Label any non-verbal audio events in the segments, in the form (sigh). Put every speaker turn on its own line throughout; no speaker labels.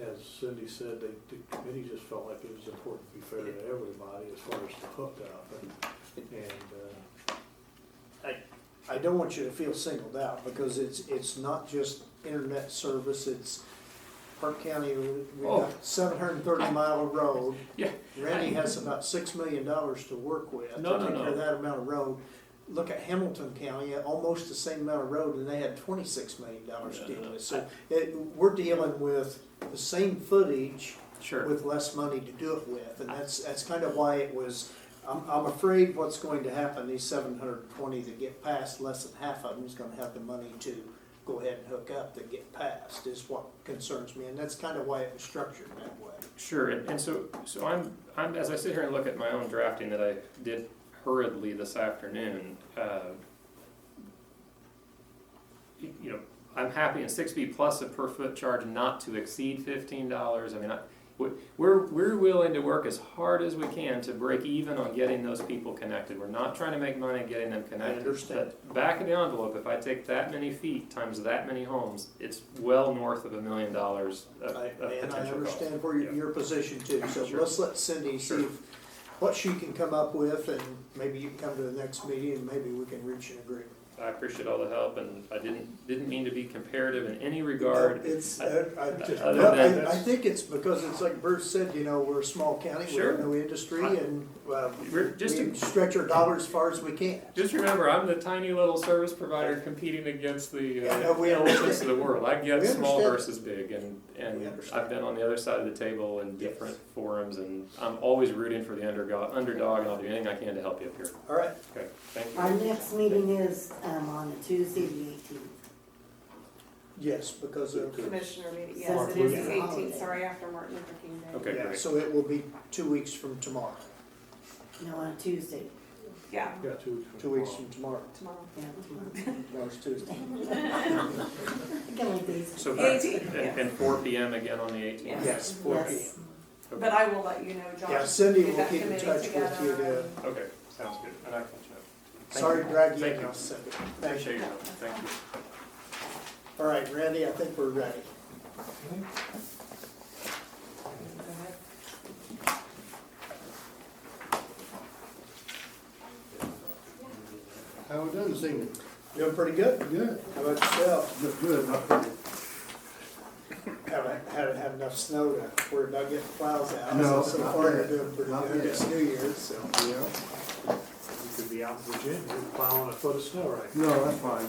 as Cindy said, the, the committee just felt like it was important to be fair to everybody as far as the hookup and, and, uh,
I don't want you to feel singled out because it's, it's not just internet service, it's Park County, we've
Oh.
got seven hundred and thirty mile road.
Yeah.
Randy has about six million dollars to work with.
No,
to
no,
take care of
no.
That amount of road. Look at Hamilton County, almost the same amount of road and they had twenty-six million dollars
Yeah,
to deal
no.
with. So it, we're dealing with the same footage
Sure.
with less money to do it with, and that's, that's kind of why it was, I'm, I'm afraid what's going to happen, these seven hundred and twenty that get passed, less than half of them is gonna have the money to go ahead and hook up that get passed, is what concerns me, and that's kind of why it was structured that way.
Sure, and, and so, so I'm, I'm, as I sit here and look at my own drafting that I did hurriedly this afternoon, uh, you you know, I'm happy in six B plus a per foot charge not to exceed fifteen dollars, I mean, I, we- we're, we're willing to work as hard as we can to break even on getting those people connected, we're not trying to make money getting them connected.
understand.
But Back of the envelope, if I take that many feet times that many homes, it's well north of a million dollars of,
I-
of potential
And I
cost.
understand where your,
Yeah.
your position too, so
Sure.
let's let Cindy see
Sure.
if, what she can come up with, and maybe you can come to the next meeting, and maybe we can reach an agreement.
I appreciate all the help, and I didn't, didn't mean to be comparative in any regard.
It's,
I-
uh, I,
Just-
no,
Other than-
I, I think it's because it's like Bruce said, you know, we're a small county, we
Sure.
have no industry
I-
and, uh,
We're
we
just,
stretch our dollars as far as we can.
just remember, I'm the tiny little service provider competing against the
Yeah, no,
uh,
we
elephants of the world. I get
We
small
understand.
versus big, and,
We
and
understand.
I've been on the other side of the table in different forums, and I'm always rooting for the underdog, underdog, and I'll do anything I can to help you up here.
All right,
Okay, thank
Our
you.
next meeting is, um, on Tuesday, the eighteenth.
yes, because of,
Commissioner meeting,
Mark
yes, it is
Luther.
the eighteenth, sorry, after Martin Luther King Day.
Okay,
yeah,
great.
so it will be two weeks from tomorrow,
No, on Tuesday,
Yeah,
got two.
two weeks from tomorrow,
tomorrow.
yeah, tomorrow. (laughs)
tomorrow's (laughs) Tuesday.
I can like these.
So back,
18,
and, and four P M again on the eighteenth.
Yeah.
Yes, four P M.
Yes.
Okay.
But I will let you know, Josh.
Yeah, Cindy
get
will
that
keep in
committee
touch with you
together.
to,
Okay, sounds good. And I can check. Thank
sorry,
you.
drag you
Thank
in,
you.
I'll send it. Thank you.
Appreciate your help. Thank you.
All right, Randy, I think we're ready.
How we done this evening?
Doing pretty good?
Good.
How about yourself?
Look good, not bad.
Haven't, haven't had enough snow to worry about getting plows out, so
No,
so
not
far you're
yet.
doing pretty
Not
good,
yet.
it's New Year's, so.
Yeah.
You could be out in Virginia plowing a foot of snow right now.
No, that's fine.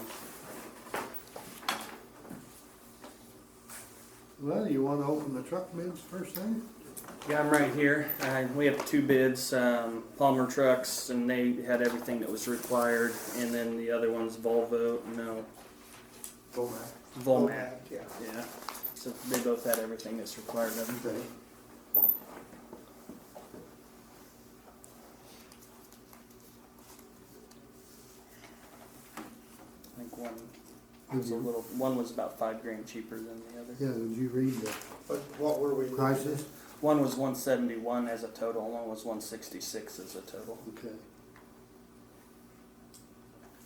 Well, you wanna open the truck bids first thing?
Yeah, I'm right here. Uh, we have two bids, um, Palmer Trucks, and they had everything that was required, and then the other one's Volvo, no,
Go back.
Volmat.
Yeah.
Yeah, so they both had everything that's required of them.
Okay.
I think one was a
Mhm.
little, one was about five grand cheaper than the other.
Yeah, did you read the
But what were we?
prices?
One was 171 as a total, and one was 166 as a total.
Okay.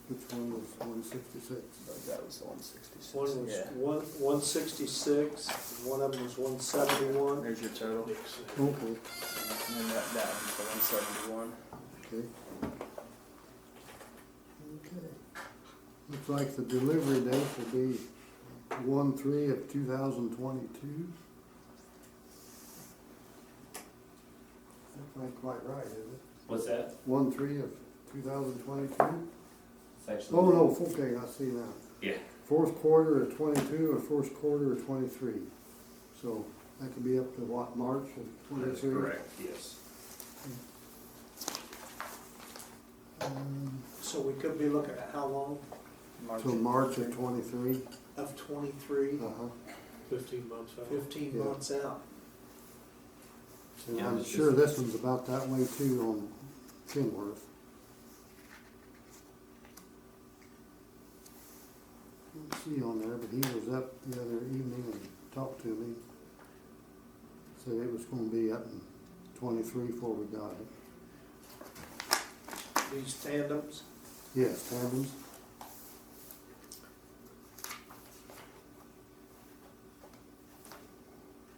Which one was one sixty-six?
But that was the 166.
One was
yeah.
one, one sixty-six, one of them was one seventy-one.
There's your total,
Okay,
and then that, that one's the 171.
okay. Okay. Looks like the delivery date will be one three of two thousand twenty-two. That's not quite right, is it?
What's that?
One three of two thousand twenty-two?
It's actually-
Oh, no, okay, I see now.
Yeah.
Fourth quarter of twenty-two or first quarter of twenty-three. So that could be up to what, March of
That's
twenty-three?
correct, yes.
Um,
So we could be looking at how long?
March
Till
and
March
February.
of twenty-three?
Of twenty-three,
Uh-huh.
Fifteen months out.
fifteen
Yeah.
months out.
And
Yeah,
I'm
it's
sure
just-
this one's about that way too on Kenworth. Let's see on there, but he was up the other evening and talked to me. Said it was gonna be up in twenty-three before we got it.
These tandems,
Yes, taverns,